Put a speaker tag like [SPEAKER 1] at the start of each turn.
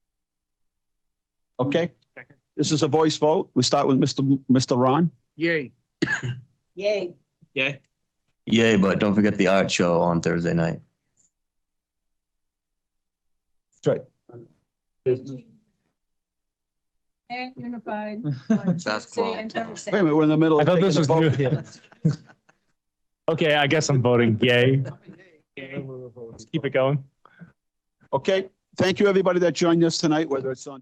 [SPEAKER 1] Okay? This is a voice vote. We start with Mr. M- Mr. Ron.
[SPEAKER 2] Yay.
[SPEAKER 3] Yay.
[SPEAKER 2] Yeah.
[SPEAKER 4] Yay, but don't forget the art show on Thursday night.
[SPEAKER 3] And unified.
[SPEAKER 4] Basketball.
[SPEAKER 3] City and town
[SPEAKER 1] Wait a minute, we're in the middle. of
[SPEAKER 5] I thought
[SPEAKER 1] taking
[SPEAKER 5] this
[SPEAKER 1] a
[SPEAKER 5] was
[SPEAKER 1] vote.
[SPEAKER 5] new. Okay, I guess I'm voting yay.
[SPEAKER 2] Yay.
[SPEAKER 5] Keep it going.
[SPEAKER 1] Okay, thank you, everybody that joined us tonight, whether it's on.